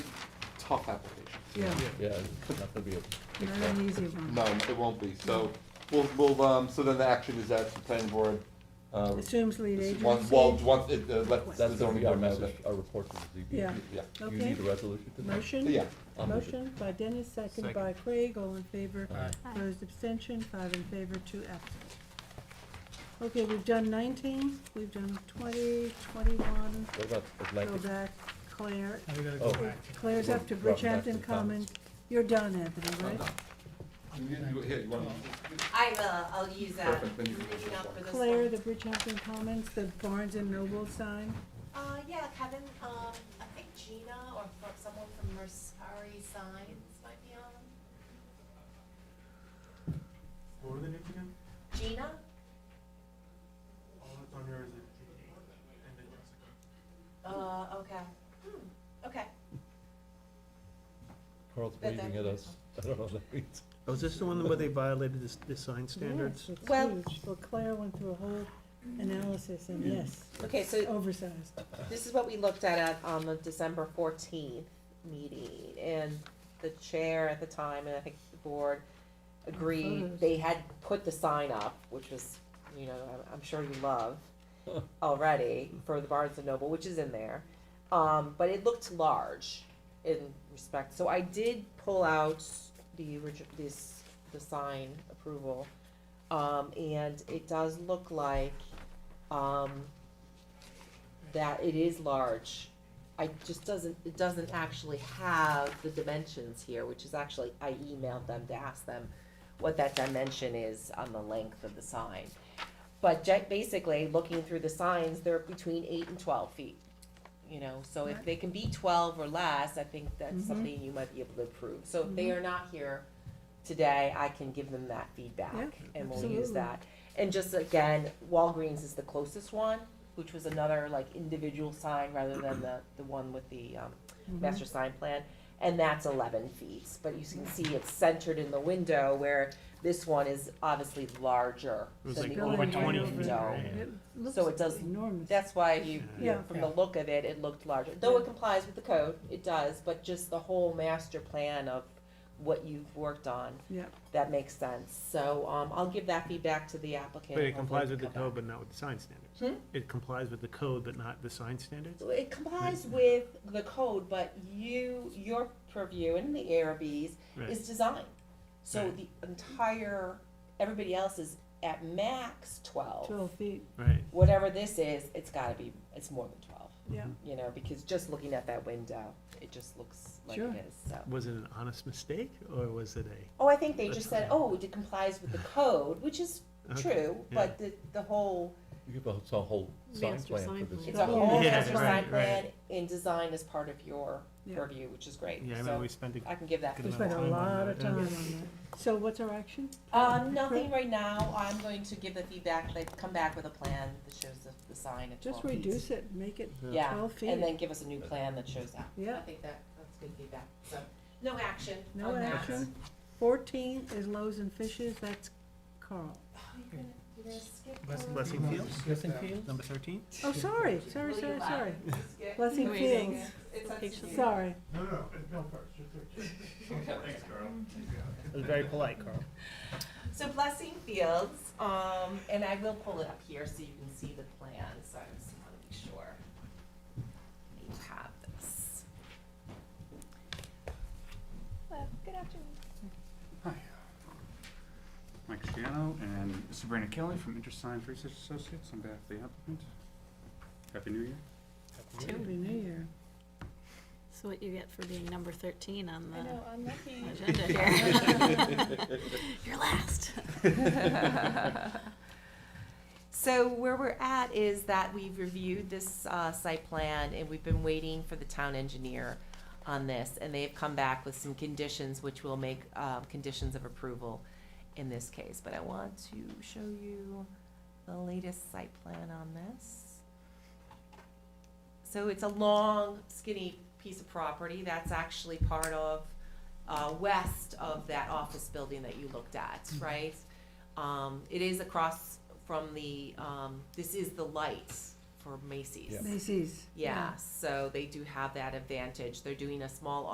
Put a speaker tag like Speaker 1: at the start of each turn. Speaker 1: tough application.
Speaker 2: Yeah,
Speaker 3: Yeah, it's not gonna be a big
Speaker 2: not
Speaker 3: problem.
Speaker 2: an easy one.
Speaker 1: No, it won't be, so, we'll, we'll, um, so then the action is that the planning board, uh,
Speaker 2: Assumes lead agency.
Speaker 1: once, well, once it, uh, let the
Speaker 3: That's gonna
Speaker 1: zoning
Speaker 3: be our
Speaker 1: board know
Speaker 3: message,
Speaker 1: that.
Speaker 3: our report to the ZBA.
Speaker 2: Yeah.
Speaker 1: Yeah,
Speaker 3: Do you
Speaker 2: Okay.
Speaker 3: need a resolution to that?
Speaker 2: Motion?
Speaker 1: yeah,
Speaker 3: I'll move it.
Speaker 2: Motion by Dennis, second
Speaker 4: Second.
Speaker 2: by Craig, all in favor.
Speaker 3: Aye.
Speaker 5: Aye.
Speaker 2: Opposed, abstention, five in favor, two absent. Okay, we've done nineteen, we've done twenty, twenty-one,
Speaker 3: What about
Speaker 2: go
Speaker 3: Atlantic?
Speaker 2: back, Claire.
Speaker 4: Now we gotta go
Speaker 3: Oh.
Speaker 4: back.
Speaker 2: Claire's up to
Speaker 3: Robin, back to
Speaker 2: Bridgehampton
Speaker 3: the comments.
Speaker 2: Commons. You're done, Anthony,
Speaker 1: I'm
Speaker 2: right?
Speaker 1: done. You- you- here, you wanna-
Speaker 6: I will, I'll use that.
Speaker 1: Perfect, then you can go
Speaker 6: Reaching
Speaker 1: this
Speaker 6: out
Speaker 1: one.
Speaker 6: for this
Speaker 2: Claire,
Speaker 6: one.
Speaker 2: the Bridgehampton Commons, the Barnes and Noble sign.
Speaker 6: Uh, yeah, Kevin, um, I think Gina or fro- someone from Mercari Signs might be on.
Speaker 7: What are the names again?
Speaker 6: Gina?
Speaker 7: All that's on here is a G and a Jessica.
Speaker 6: Uh, okay. Hmm, okay.
Speaker 3: Carl's
Speaker 6: That-
Speaker 3: waving at us. I don't know what that means.
Speaker 4: Oh, is this the one where they violated the, the sign standards?
Speaker 2: Yes, it's
Speaker 6: Well-
Speaker 2: huge. Well, Claire went through a whole analysis and yes,
Speaker 6: Okay, so
Speaker 2: oversized.
Speaker 6: This is what we looked at at, on the December fourteenth meeting, and the chair at the time, and I think the board agreed,
Speaker 2: Photos.
Speaker 6: they had put the sign up, which was, you know, I'm, I'm sure you love already, for the Barnes and Noble, which is in there, um, but it looked large in respect, so I did pull out the orig- this, the sign approval, um, and it does look like, um, that it is large. I just doesn't, it doesn't actually have the dimensions here, which is actually, I emailed them to ask them what that dimension is on the length of the sign. But ja- basically, looking through the signs, they're between eight and twelve feet, you know, so if
Speaker 2: Right.
Speaker 6: they can be twelve or less, I think that's
Speaker 2: Mhm.
Speaker 6: something you might be able to approve. So if
Speaker 2: Mm-hmm.
Speaker 6: they are not here today, I can give them that feedback
Speaker 2: Yeah,
Speaker 6: and we'll use
Speaker 2: absolutely.
Speaker 6: that. And just again, Walgreens is the closest one, which was another like individual sign rather than the, the one with the, um,
Speaker 2: Mm-hmm.
Speaker 6: master sign plan. And that's eleven feet, but you can see it's centered in the window where this one is obviously larger
Speaker 4: It was
Speaker 6: than
Speaker 4: like
Speaker 6: the
Speaker 4: over
Speaker 6: old
Speaker 4: 20
Speaker 6: window.
Speaker 4: feet, right?
Speaker 2: It looks
Speaker 6: So it does-
Speaker 2: enormous.
Speaker 6: That's why you,
Speaker 2: Yeah.
Speaker 6: from the look of it, it looked larger, though
Speaker 2: Yeah.
Speaker 6: it complies with the code, it does, but just the whole master plan of what you've worked on,
Speaker 2: Yeah,
Speaker 6: that makes sense. So, um, I'll give that feedback to the applicant.
Speaker 4: But it
Speaker 6: Hopefully
Speaker 4: complies
Speaker 6: they
Speaker 4: with the
Speaker 6: come
Speaker 4: code,
Speaker 6: back.
Speaker 4: but not with the sign standards.
Speaker 6: Hmm?
Speaker 4: It complies with the code, but not the sign standards?
Speaker 6: So It complies with the code, but you, your purview and the ARBs
Speaker 4: Right.
Speaker 6: is design. So
Speaker 4: Right.
Speaker 6: the entire, everybody else is at max twelve.
Speaker 2: twelve feet,
Speaker 4: Right,
Speaker 6: Whatever this is, it's gotta be, it's more than twelve,
Speaker 2: yeah.
Speaker 6: you know, because just looking at that window, it just looks like
Speaker 2: Sure.
Speaker 6: it is, so.
Speaker 4: was it an honest mistake, or was it a?
Speaker 6: Oh, I think they just said, oh, it complies with the code, which is
Speaker 4: Okay,
Speaker 6: true, but the, the whole,
Speaker 3: You give us a whole sign
Speaker 5: Master
Speaker 3: plan
Speaker 5: sign
Speaker 3: for this.
Speaker 5: plan.
Speaker 6: it's a whole
Speaker 4: Yeah,
Speaker 6: master
Speaker 4: right,
Speaker 6: design plan
Speaker 4: right.
Speaker 6: and design is part of your
Speaker 2: Yeah.
Speaker 6: purview, which is great,
Speaker 4: Yeah, I remember
Speaker 6: so
Speaker 4: we spent a
Speaker 6: I can give that
Speaker 4: Good
Speaker 2: We spent
Speaker 4: amount
Speaker 2: a
Speaker 4: time on
Speaker 2: lot
Speaker 4: that,
Speaker 2: of
Speaker 4: yeah.
Speaker 2: time on that. So what's our action?
Speaker 6: Um, nothing right now, I'm going to give the feedback, like, come back with a plan that shows the, the sign at twelve
Speaker 2: Just
Speaker 6: feet.
Speaker 2: reduce it, make it,
Speaker 6: Yeah,
Speaker 2: 12 feet.
Speaker 6: and then give us a new plan that shows that.
Speaker 2: Yeah.
Speaker 6: I think that, that's good feedback, so, no action
Speaker 2: no
Speaker 6: on that.
Speaker 2: action. Fourteen is Loaves and Fishes, that's Carl.
Speaker 6: Oh, you're gonna, you're gonna skip.
Speaker 4: Bless-
Speaker 6: over.
Speaker 4: Blessing Fields,
Speaker 3: Blessing
Speaker 4: number thirteen?
Speaker 2: Oh, sorry, sorry,
Speaker 6: Will you
Speaker 2: sorry,
Speaker 6: laugh?
Speaker 2: sorry.
Speaker 6: Skip.
Speaker 2: Blessing
Speaker 5: Amazing.
Speaker 2: Fields,
Speaker 6: It's
Speaker 5: Location.
Speaker 6: unsecured.
Speaker 2: sorry.
Speaker 7: No, no, no, first, just Thanks, Carl.
Speaker 4: It was very polite, Carl.
Speaker 6: So Blessing Fields, um, and I will pull it up here so you can see the plan, so I just wanna be sure that you have this. Good afternoon.
Speaker 8: Hi. Mike Shiano and Sabrina Kelly from InterScience Research Associates on behalf of the applicant. Happy New Year.
Speaker 2: Happy New Year.
Speaker 5: So what you get for being number thirteen on
Speaker 6: I know, I'm
Speaker 5: the
Speaker 6: lucky.
Speaker 5: agenda here. You're last.
Speaker 6: So where we're at is that we've reviewed this uh, site plan and we've been waiting for the town engineer on this. And they've come back with some conditions which will make uh, conditions of approval in this case. But I want to show you the latest site plan on this. So it's a long skinny piece of property that's actually part of, uh, west of that office building that you looked at, right? Um, it is across from the, um, this is the lights for Macy's.
Speaker 3: Yeah.
Speaker 2: Macy's.
Speaker 6: Yeah, so they do have that advantage. They're doing a small